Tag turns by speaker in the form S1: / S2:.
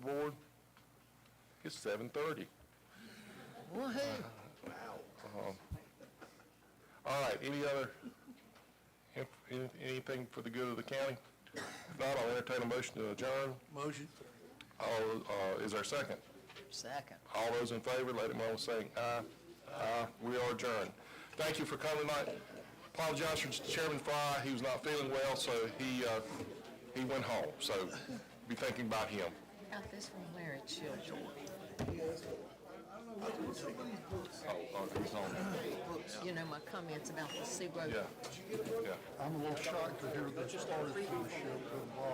S1: It's seven thirty.
S2: Well, hey,
S1: All right, any other, if- any- anything for the good of the county? If not, I'll entertain a motion to adjourn.
S2: motion.
S1: All, uh, is there a second?
S2: Second.
S1: All those in favor, let it know by saying aye. Aye, we are adjourned. Thank you for coming tonight. Apologize for Chairman Fry, he was not feeling well, so he, uh, he went home, so be thinking about him.
S3: Got this from Larry Children.
S1: Oh, oh, he's home,
S3: You know, my comments about the Sea Road
S1: yeah, yeah.
S4: I'm a little shocked to hear that the started for the show couldn't